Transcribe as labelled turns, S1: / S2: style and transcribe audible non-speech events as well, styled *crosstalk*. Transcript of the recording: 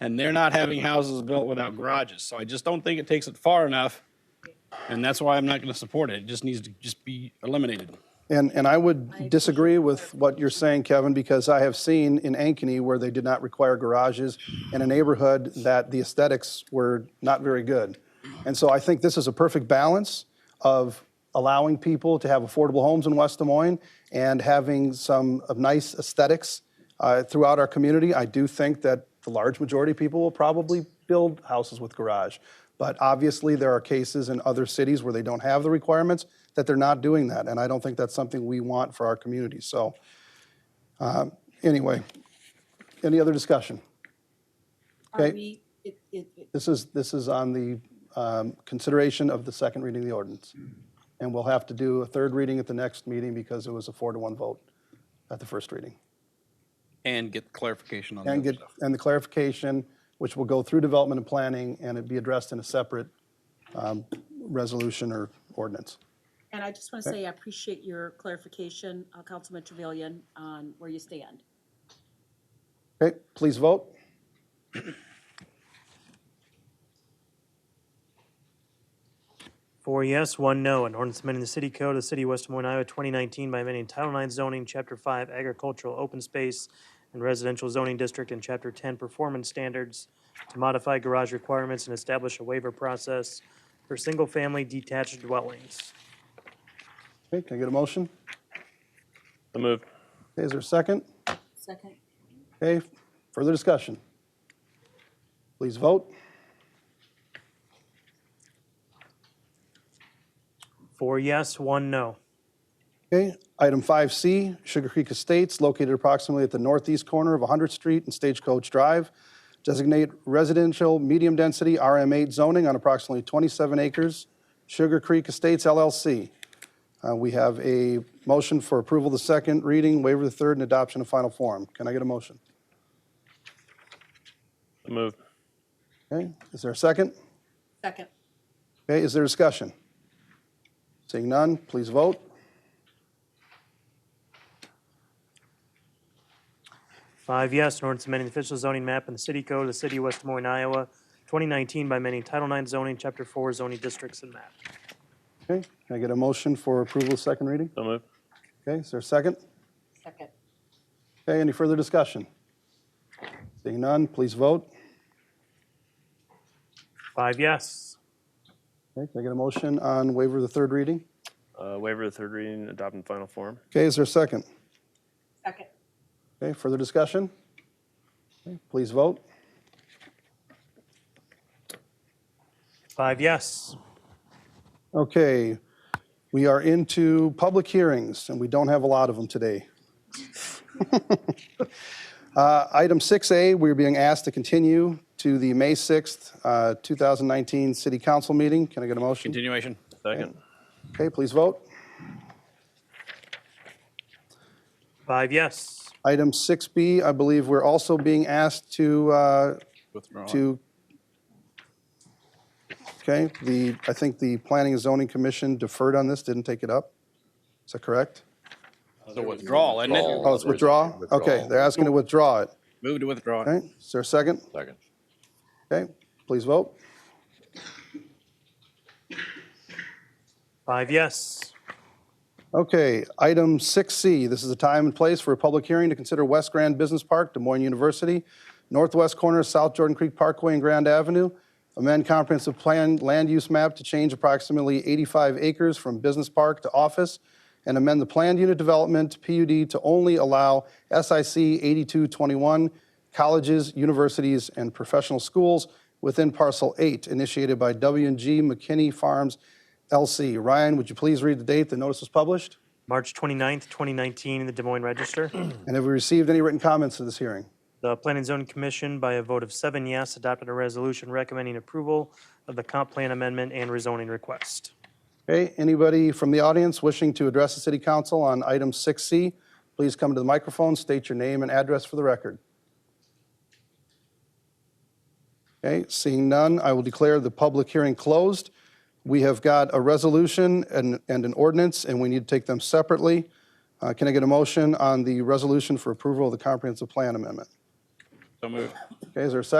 S1: and they're not having houses built without garages. So I just don't think it takes it far enough, and that's why I'm not going to support it. It just needs to just be eliminated.
S2: And, and I would disagree with what you're saying, Kevin, because I have seen in Ankeny where they did not require garages in a neighborhood that the aesthetics were not very good. And so I think this is a perfect balance of allowing people to have affordable homes in West Des Moines and having some of nice aesthetics uh, throughout our community. I do think that the large majority of people will probably build houses with garage. But obviously, there are cases in other cities where they don't have the requirements that they're not doing that. And I don't think that's something we want for our community. So, um, anyway, any other discussion?
S3: Are
S2: Okay.
S3: we, it, it, it-
S2: This is, this is on the um, consideration of the second reading of the ordinance. And we'll have to do a third reading at the next meeting because it was a four to one vote at the first reading.
S1: And get clarification on
S2: And get, and the clarification, which will go through development and planning, and it be addressed in a separate um, resolution or ordinance.
S3: and I just want to say, I appreciate your clarification, uh, Councilman Trevilian, on where you stand.
S2: Okay, please vote.
S4: Four yes, one no. An ordinance amending the city code of the city of West Des Moines, Iowa, 2019 by amending Title IX zoning, Chapter 5 agricultural open space and residential zoning district, and Chapter 10 performance standards to modify garage requirements and establish a waiver process for single-family detached dwellings.
S2: Okay, can I get a motion?
S5: The move.
S2: Okay, is there a second?
S3: Second.
S2: Okay, further discussion? Please vote.
S4: Four yes, one no.
S2: Okay, item 5C, Sugar Creek Estates, located approximately at the northeast corner of 100th Street and Stagecoach Drive. Designate residential medium-density RM8 zoning on approximately 27 acres, Sugar Creek Estates LLC. Uh, We have a motion for approval of the second reading, waiver of the third, and adoption of final form. Can I get a motion?
S5: The move.
S2: Okay, is there a second?
S3: Second.
S2: Okay, is there discussion? Seeing none, please vote.
S4: Five yes, an ordinance amending the official zoning map in the city code of the city of West Des Moines, Iowa, 2019 by amending Title IX zoning, Chapter 4 zoning districts and map.
S2: Okay, can I get a motion for approval of second reading?
S5: The move.
S2: Okay, is there a second?
S3: Second.
S2: Okay, any further discussion? Seeing none, please vote.
S4: Five yes.
S2: Okay, can I get a motion on waiver of the third reading?
S5: Uh, waiver of the third reading, adopt in final form.
S2: Okay, is there a second?
S3: Second.
S2: Okay, further discussion? Okay, Please vote.
S4: Five yes.
S2: Okay, we are into public hearings, and we don't have a lot of them today. *laughs* Uh, Item 6A, we're being asked to continue to the May 6th, uh, 2019 City Council meeting. Can I get a motion?
S1: Continuation.
S5: Second.
S2: Okay, please vote.
S4: Five yes.
S2: Item 6B, I believe we're also being asked to, uh,
S1: Withdrawal.
S2: to, okay, the, I think the Planning and Zoning Commission deferred on this, didn't take it up. Is that correct?
S1: The withdrawal, isn't it?
S2: Oh, it's withdraw? Okay, they're asking to withdraw it.
S1: Move to withdraw.
S2: Okay, is there a second?
S6: Second.
S2: Okay, please vote.
S4: Five yes.
S2: Okay, item 6C, this is a time and place for a public hearing to consider West Grand Business Park, Des Moines University, northwest corner of South Jordan Creek Parkway and Grand Avenue, amend comprehensive plan land use map to change approximately 85 acres from business park to office, and amend the planned unit development PUD to only allow SIC 8221 colleges, universities, and professional schools within parcel 8 initiated by W and G McKinney Farms LC. Ryan, would you please read the date the notice was published?
S4: March 29th, 2019, in the Des Moines Register.
S2: And have we received any written comments to this hearing?
S4: The Planning and Zoning Commission, by a vote of seven yes, adopted a resolution recommending approval of the comp plan amendment and rezoning request.
S2: Okay, anybody from the audience wishing to address the city council on item 6C, please come to the microphone, state your name and address for the record. Okay, seeing none, I will declare the public hearing closed. We have got a resolution and, and an ordinance, and we need to take them separately. Uh, Can I get a motion on the resolution for approval of the comprehensive plan amendment?
S1: So move.
S2: Okay, is there a second?